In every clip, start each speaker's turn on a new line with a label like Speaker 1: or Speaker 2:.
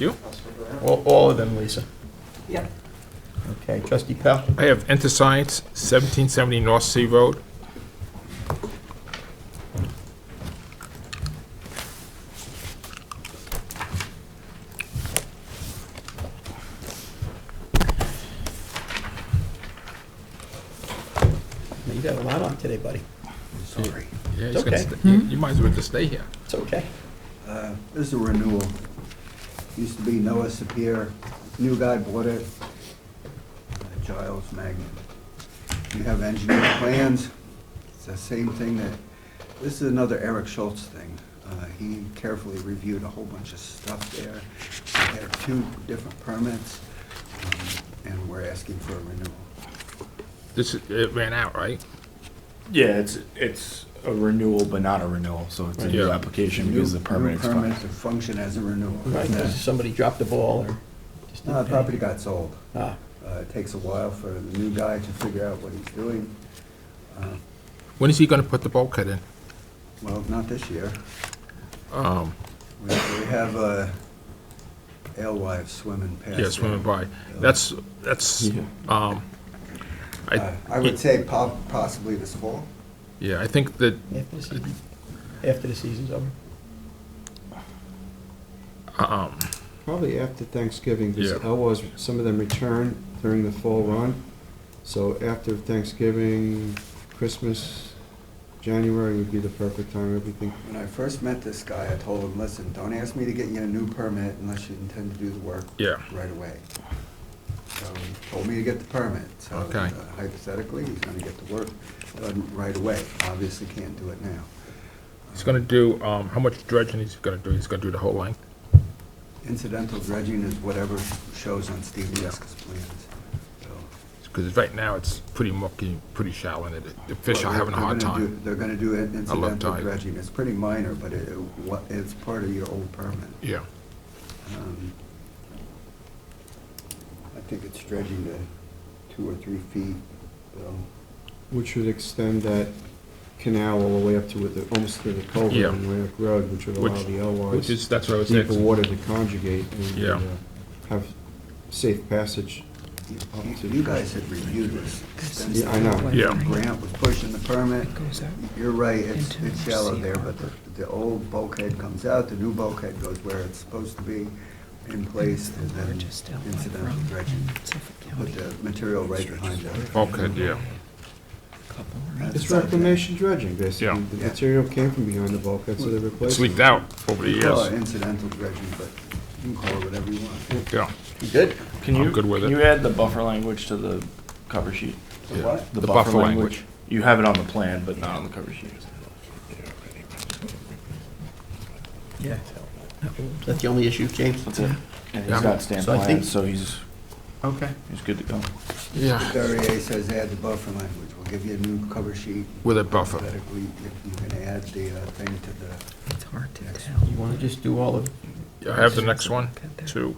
Speaker 1: You?
Speaker 2: All all of them, Lisa?
Speaker 3: Yep.
Speaker 2: Okay, trustee Pell?
Speaker 1: I have Enter Science, 1770 North Sea Road.
Speaker 2: You got a lot on today, buddy. Sorry.
Speaker 1: Yeah,
Speaker 2: It's
Speaker 1: you can
Speaker 2: okay.
Speaker 1: st- You you might as well just stay here.
Speaker 2: It's okay.
Speaker 4: Uh, This is a renewal. Used to be Noah Sapir, new guy bought it, uh, Giles Magnet. You have engineered plans, it's the same thing that, this is another Eric Schultz thing. Uh, He carefully reviewed a whole bunch of stuff there. He had two different permits, um, and we're asking for a renewal.
Speaker 1: This, is- it ran out, right?
Speaker 5: Yeah, it's, it's a renewal, but not a renewal, so it's a new
Speaker 1: Yeah.
Speaker 5: application because the
Speaker 4: New-
Speaker 5: permit
Speaker 4: New permit
Speaker 5: expires.
Speaker 4: to function as a renewal.
Speaker 2: Right, 'cause somebody dropped the ball or just
Speaker 4: No,
Speaker 2: didn't pay.
Speaker 4: the property got sold.
Speaker 2: Ah,
Speaker 4: Uh, It takes a while for the new guy to figure out what he's doing. Uh,
Speaker 1: When is he gonna put the bulkhead in?
Speaker 4: Well, not this year.
Speaker 1: Um,
Speaker 4: We we have uh, alewives swimming past.
Speaker 1: yeah, swimming
Speaker 4: there.
Speaker 1: by. That's, that's,
Speaker 5: Yeah.
Speaker 1: um,
Speaker 4: Uh,
Speaker 1: I,
Speaker 4: I would say po- possibly this fall.
Speaker 1: yeah, I think that,
Speaker 2: after the season, after the season's over.
Speaker 1: um,
Speaker 6: Probably after Thanksgiving, because
Speaker 1: Yeah.
Speaker 6: Elwes, some of them return during the fall run. So after Thanksgiving, Christmas, January would be the perfect time, everything.
Speaker 4: When I first met this guy, I told him, listen, don't ask me to get you a new permit unless you intend to do the work
Speaker 1: yeah,
Speaker 4: right away. So he told me to get the permit. So
Speaker 1: Okay.
Speaker 4: uh, hypothetically, he's going to get the work done right away. Obviously can't do it now.
Speaker 1: he's gonna do, um, how much dredging is he gonna do? He's gonna do the whole length?
Speaker 4: Incidental dredging is whatever shows on Steve Leska's plans. So,
Speaker 1: Because right now, it's pretty mucky, pretty shallow, and it- the fish are
Speaker 4: Well,
Speaker 1: having a
Speaker 4: they're
Speaker 1: hard
Speaker 4: gonna
Speaker 1: time.
Speaker 4: do- They're gonna do an incidental
Speaker 1: tide.
Speaker 4: dredging, it's pretty minor, but it, it wa- it's part of your old permit.
Speaker 1: Yeah,
Speaker 4: Um, I think it's dredging to two or three feet, so.
Speaker 6: Which would extend that canal all the way up to with the, almost to the culvert
Speaker 1: Yeah.
Speaker 6: on Ramp Road, which would allow
Speaker 1: Which-
Speaker 6: the
Speaker 1: which is,
Speaker 6: Elwes
Speaker 1: that's what I was
Speaker 6: deeper
Speaker 1: saying.
Speaker 6: water to conjugate and
Speaker 1: Yeah.
Speaker 6: uh, have safe passage.
Speaker 4: you-
Speaker 6: Up
Speaker 4: you-
Speaker 6: to-
Speaker 4: You guys had reviewed this extensively.
Speaker 6: Yeah, I know.
Speaker 1: Yeah.
Speaker 4: Grant was pushing the permit,
Speaker 3: Goes out.
Speaker 4: you're right, it's,
Speaker 3: Into
Speaker 4: it's shallow
Speaker 3: sea
Speaker 4: there, but the, the old bulkhead comes out, the new bulkhead goes where it's supposed to be in place, and then
Speaker 3: Largest outlet
Speaker 4: incidental
Speaker 3: from
Speaker 4: dredging.
Speaker 3: Suffolk
Speaker 4: Put
Speaker 3: County.
Speaker 4: the material right behind it.
Speaker 1: Bulkhead, yeah.
Speaker 3: Couple, right?
Speaker 4: That's
Speaker 6: It's reclamation dredging, basically.
Speaker 1: Yeah.
Speaker 6: The
Speaker 4: Yeah.
Speaker 6: material came from behind the bulkhead, so they replaced
Speaker 1: It's
Speaker 6: it.
Speaker 1: leaked out over the
Speaker 4: You call it
Speaker 1: years.
Speaker 4: incidental dredging, but you can call it whatever you want.
Speaker 1: Oh, Yeah,
Speaker 2: You good?
Speaker 5: Can
Speaker 1: I'm
Speaker 5: you,
Speaker 1: good with
Speaker 5: can
Speaker 1: it.
Speaker 5: you add the buffer language to the cover sheet?
Speaker 1: Yeah.
Speaker 4: What?
Speaker 1: The buffer language.
Speaker 5: You have it on the plan, but not on the cover sheet.
Speaker 2: Yeah. Is that the only issue, James?
Speaker 5: That's it. And
Speaker 1: Yeah.
Speaker 5: he's got stamped
Speaker 2: So I think-
Speaker 5: plans, so he's,
Speaker 2: Okay.
Speaker 5: he's good to go.
Speaker 1: yeah,
Speaker 4: REA says add the buffer language, we'll give you a new cover sheet.
Speaker 1: with a buffer.
Speaker 4: Hypothetically, if you can add the uh, thing to the,
Speaker 3: It's hard to
Speaker 4: Next.
Speaker 3: tell.
Speaker 2: You want to just do all of,
Speaker 1: I have the next one, two.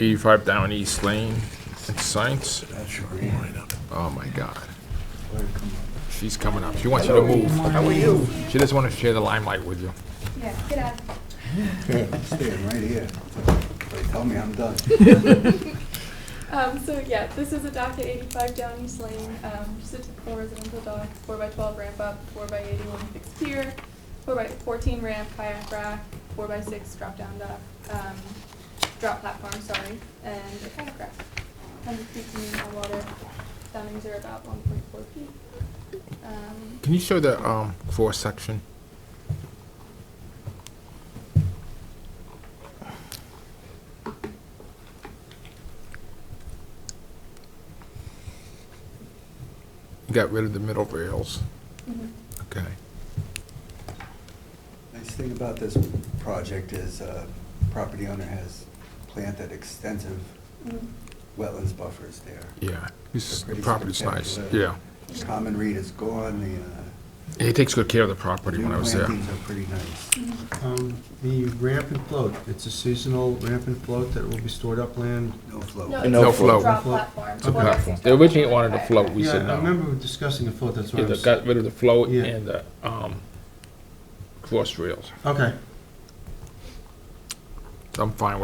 Speaker 1: Eighty-five down East Lane, Enter Science.
Speaker 4: that's your grant.
Speaker 1: Oh, my God.
Speaker 4: Where'd it come up?
Speaker 1: She's coming up. She wants you to move.
Speaker 2: how are you?
Speaker 1: She doesn't want to share the limelight with you.
Speaker 7: Yeah, get out.
Speaker 4: I'm Staying right here. They tell me I'm done.
Speaker 7: Um, so yeah, this is a dock at eightyfive down East Lane, um, just a typical residential dock, four by twelve ramp up, four by eighty-one fixed pier, four by fourteen ramp, kayak rack, four by six drop down dock, um, drop platform, sorry, and a kayak rack. Hundred feet to mean on water, soundings are about one point four feet. Um,
Speaker 1: Can you show the um, floor section? You Got rid of the middle rails.
Speaker 7: mhm.
Speaker 1: Okay.
Speaker 4: Nice thing about this project is uh, property owner has planted extensive
Speaker 7: Mhm.
Speaker 4: wetlands buffers there.
Speaker 1: Yeah. This- The
Speaker 4: Pretty
Speaker 1: property's nice. Yeah.
Speaker 4: spectacular. Common reed is gone, the
Speaker 1: He takes good care of the
Speaker 4: uh,
Speaker 1: property
Speaker 4: new
Speaker 1: when I was there.
Speaker 4: plantings are pretty nice.
Speaker 6: Um, The ramp and float, it's a seasonal ramp and float that will be stored upland.
Speaker 4: No float.
Speaker 7: No,
Speaker 5: And no
Speaker 7: it's a
Speaker 1: float.
Speaker 7: drop
Speaker 6: Float.
Speaker 7: platform.
Speaker 1: Okay.
Speaker 7: four by six
Speaker 1: They
Speaker 7: drop
Speaker 1: originally
Speaker 7: platform,
Speaker 1: wanted a
Speaker 7: kayak
Speaker 1: float.
Speaker 7: rack.
Speaker 1: We said
Speaker 6: Yeah,
Speaker 1: no.
Speaker 6: I remember discussing the float, that's why I
Speaker 1: Yeah, they
Speaker 6: was.
Speaker 1: got rid of the float
Speaker 6: Yeah.
Speaker 1: and the um, cross rails.
Speaker 6: Okay,
Speaker 1: I'm fine with